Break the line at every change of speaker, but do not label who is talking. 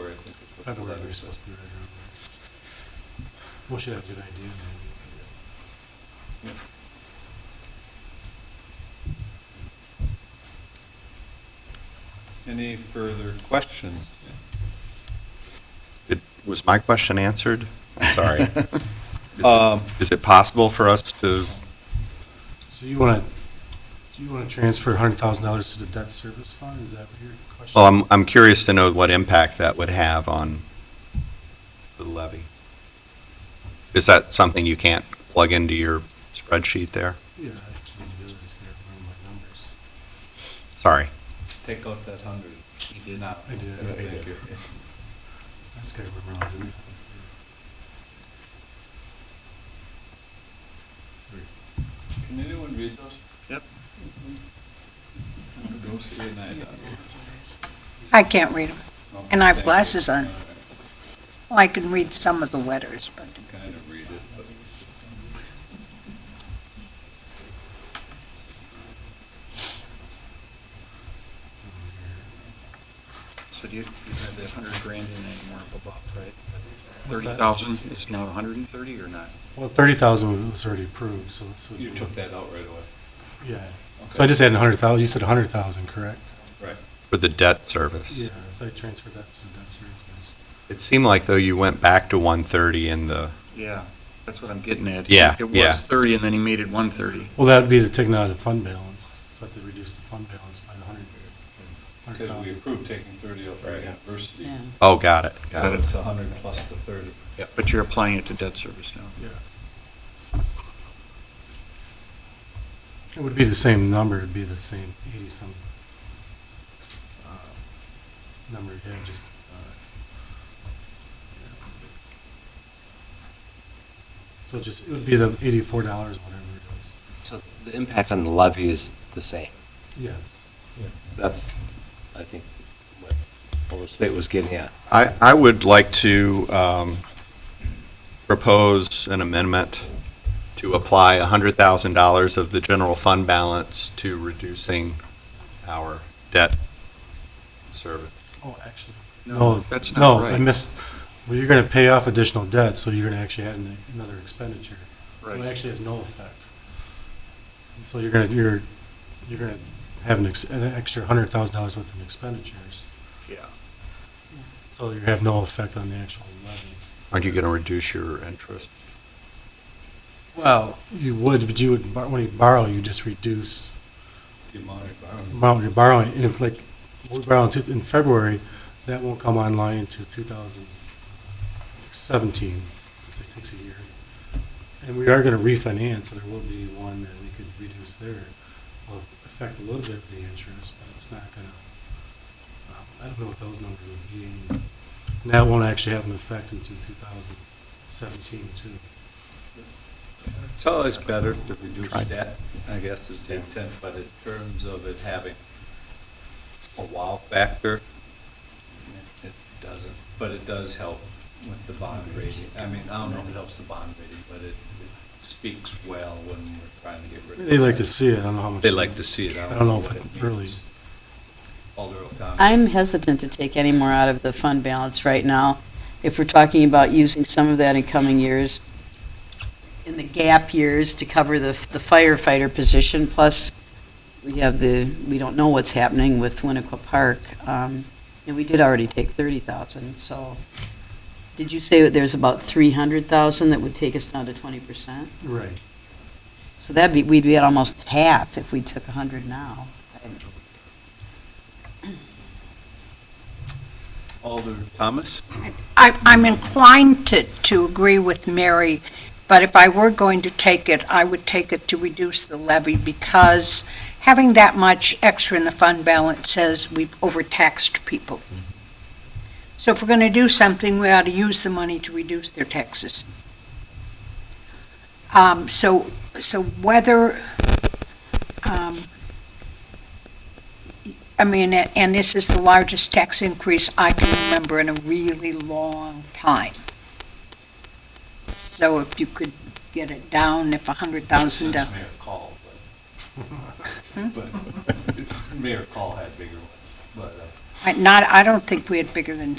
I believe you're supposed to be right around there. We should have a good idea.
Any further questions?
It- Was my question answered? I'm Sorry. Is it-
Um,
Is it possible for us to,
So you want to, you want to transfer $100,000 to the debt service fund? Is that what your question?
well, Oh, I'm, I'm curious to know what impact that would have on the levy. Is that something you can't plug into your spreadsheet there?
Yeah, I can do this here, run my numbers.
Sorry.
Take out that hundred. You did not.
I did.
Yeah, Thank you.
I just got to remember how to do it.
Can anyone read those? Yep. Go see an eye
I can't read them.
doctor.
And I have
Thank you.
glasses on.
All right.
Well, I can read some of the letters, but
Kind of read it, but.
So do you, you have that hundred grand in that you weren't above, right?
What's
Thirty
that?
thousand is now a hundred and thirty or not?
Well, 30,000 was already approved, so this would
You
be-
took that out right away.
Yeah. So I just added 100,000, you said 100,000, correct?
Right.
For the debt service?
Yeah, so I transferred that to the debt service.
It seemed like though you went back to 130 in the,
Yeah, that's what I'm getting at.
Yeah,
It
yeah.
was thirty and then he made it one thirty.
Well, that would be the taking out of the fund balance, so I have to reduce the fund balance by the 100
Because we
100,000.
approved taking thirty out for
Right.
university.
oh, got it, got
So
it.
it's a hundred plus the thirty.
But you're applying it to debt service now.
Yeah. It would be the same number, it'd be the same 80-some uh, number, yeah, just. uh, yeah, that's it. So just, it would be the $84, whatever it is.
So the impact on the levy is the same.
Yes.
That's, I think, what Boulder State was getting at.
I, I would like to um, propose an amendment to apply $100,000 of the general fund balance to reducing our debt service.
Oh, actually.
No,
No,
that's not
no, I
right.
missed, well, you're going to pay off additional debt, so you're going to actually add an- another expenditure. So it
Right.
actually has no effect. And So you're going to, you're, you're going to have an ex- an extra $100,000 worth of expenditures,
Yeah.
so you have no effect on the actual levy.
Aren't you going to reduce your interest?
Well. You would, but you would, bor- when you borrow, you just reduce
The amount of
the
borrowing.
amount you're borrowing, and if, like, we're borrowing to- in February, that won't come online until 2017, because it takes a year. And we are going to refinance, so there will be one that we could reduce there. Will affect a little bit of the interest, but it's not going to, I don't know what those numbers would be. And that won't actually have an effect until 2017, too.
It's always better to reduce
Right.
debt, I guess is the intent, but in terms of it having a wow factor, it doesn't, but it does help with the bond rating. I mean, I don't know if it helps the bond rating, but it it speaks well when we're trying to get rid of.
They like to
debt.
see it, I don't know how much.
They like to see it.
I don't know if
what
it really,
means. Alder O'Connor.
I'm hesitant to take any more out of the fund balance right now. If we're talking about using some of that in coming years, in the gap years to cover the the firefighter position, plus we have the, we don't know what's happening with Winnequa Park. Um, And we did already take 30,000, so, did you say that there's about 300,000 that would take us down to 20%?
right.
So that'd be, we'd be at almost half if we took 100 now.
Alder Thomas?
I, I'm inclined to, to agree with Mary, but if I were going to take it, I would take it to reduce the levy because having that much extra in the fund balance says we've overtaxed people. So if we're going to do something, we ought to use the money to reduce their taxes. Um, so, so whether, um, I mean, a- and this is the largest tax increase I can remember in a really long time. So if you could get it down, if a hundred thousand
Since
dollars.
Mayor Call, but, but Mayor Call had bigger ones, but, uh,
Not, I don't think we had bigger than